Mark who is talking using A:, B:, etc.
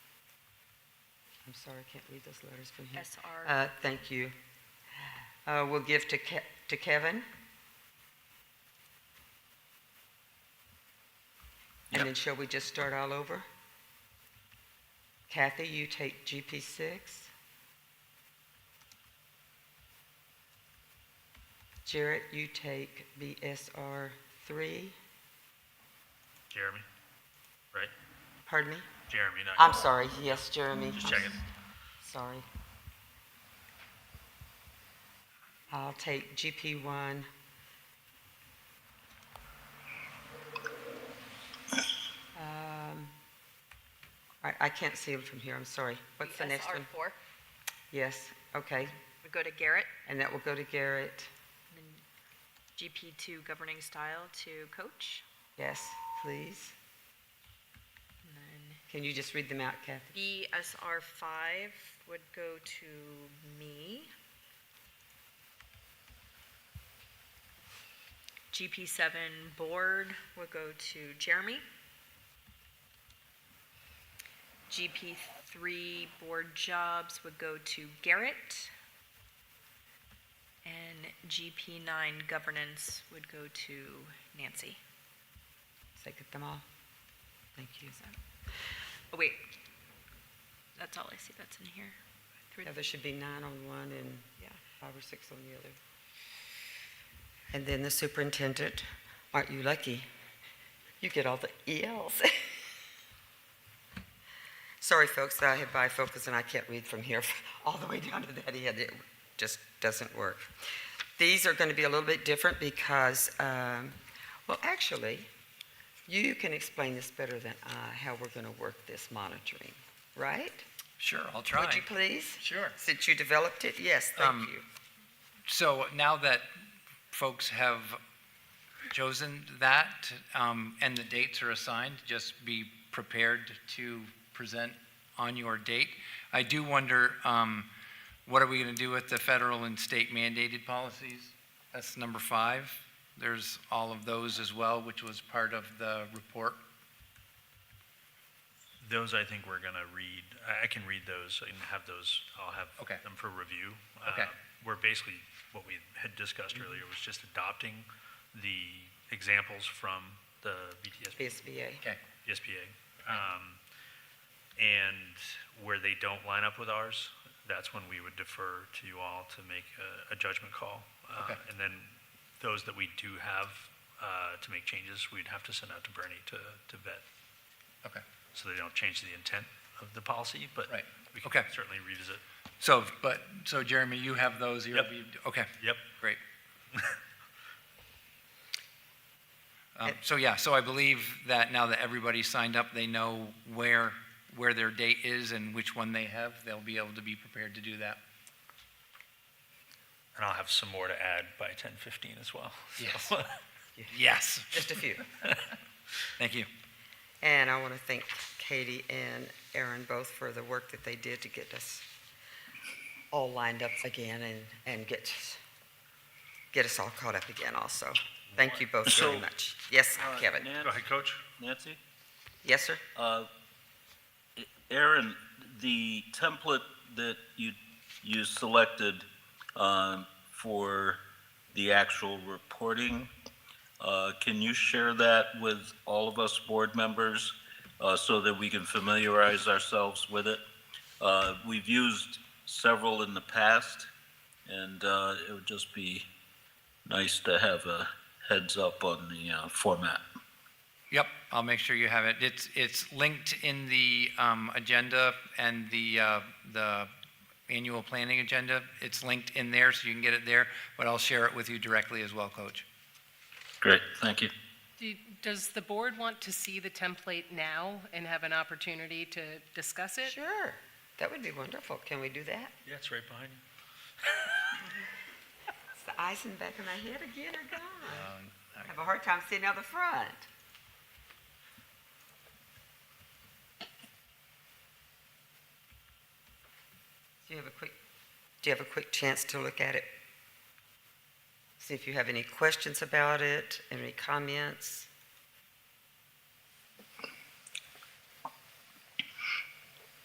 A: I'm sorry, I can't read those letters from here.
B: SR,
A: Uh, Thank you. Uh, We'll give to Ke- to Kevin. And
C: Yep.
A: then shall we just start all over? Kathy, you take GP6. Jarrett, you take BSR3.
C: Jeremy, right?
A: Pardon me?
C: Jeremy, not
A: I'm
C: you.
A: sorry, yes, Jeremy.
C: Just
A: I'm
C: checking.
A: Sorry. I'll take GP1. Um, I, I can't see them from here, I'm sorry. What's the next one?
B: SR4.
A: Yes, okay.
B: We go to Garrett,
A: And that will go to Garrett.
B: and then GP2 governing style to coach,
A: Yes, please.
B: and then
A: Can you just read them out, Kathy?
B: BSR5 would go to me. GP7 board would go to Jeremy. GP3 board jobs would go to Garrett. And GP9 governance would go to Nancy.
A: Did I get them all? Thank you.
B: Oh, wait. That's all I see that's in here. Through
A: Yeah, there should be nine on one and
B: Yeah.
A: five or six on the other. And then the superintendent, aren't you lucky? You get all the ELs. Sorry, folks, I have bifocals and I can't read from here all the way down to that end. It just doesn't work. These are going to be a little bit different because, um, well, actually, you can explain this better than I, how we're going to work this monitoring, right?
D: Sure, I'll try.
A: Would you please?
D: Sure.
A: Since you developed it, yes, thank
D: Um,
A: you.
D: So now that folks have chosen that um, and the dates are assigned, just be prepared to present on your date. I do wonder, um, what are we going to do with the federal and state mandated policies? That's number five. There's all of those as well, which was part of the report.
C: Those I think we're gonna read, I, I can read those and have those, I'll have
D: Okay.
C: them for review.
D: Okay.
C: Uh, We're basically, what we had discussed earlier was just adopting the examples from the BTSBA.
A: BSBA.
D: Okay.
C: SBA. Um, and where they don't line up with ours, that's when we would defer to you all to make a, a judgment call. Uh,
D: Okay.
C: And then those that we do have, uh, to make changes, we'd have to send out to Bernie to, to vet.
D: Okay.
C: So they don't change the intent of the policy, but
D: Right.
C: we can
D: Okay.
C: certainly revisit.
D: So, but, so Jeremy, you have those? you
C: Yep.
D: have- Okay.
C: Yep.
D: Great. Um,
A: And-
D: So, yeah, so I believe that now that everybody's signed up, they know where, where their date is and which one they have. They'll be able to be prepared to do that.
C: And I'll have some more to add by ten fifteen as well. so.
D: Yes. Yes.
A: Just a few.
D: Thank you.
A: And I want to thank Katie and Aaron both for the work that they did to get us all lined up again and, and get, get us all caught up again also. Thank you both very
E: So,
A: much. Yes,
E: Uh,
A: Kevin.
E: Nan-
C: Go ahead, Coach.
E: Nancy?
A: Yes, sir?
E: Uh, Aaron, the template that you, you selected um, for the actual reporting, uh, can you share that with all of us board members uh, so that we can familiarize ourselves with it? Uh, We've used several in the past, and uh, it would just be nice to have a heads up on the uh, format.
D: Yep, I'll make sure you have it. It's, it's linked in the um, agenda and the, uh, the annual planning agenda. It's linked in there, so you can get it there, but I'll share it with you directly as well, Coach.
E: Great, thank you.
F: Do- Does the board want to see the template now and have an opportunity to discuss it?
A: Sure. That would be wonderful. Can we do that?
C: Yeah, it's right behind you.
A: It's the eyes in the back of my head again are gone.
D: Um,
A: I have a hard time seeing out the front. Do you have a quick, do you have a quick chance to look at it? See if you have any questions about it, any comments?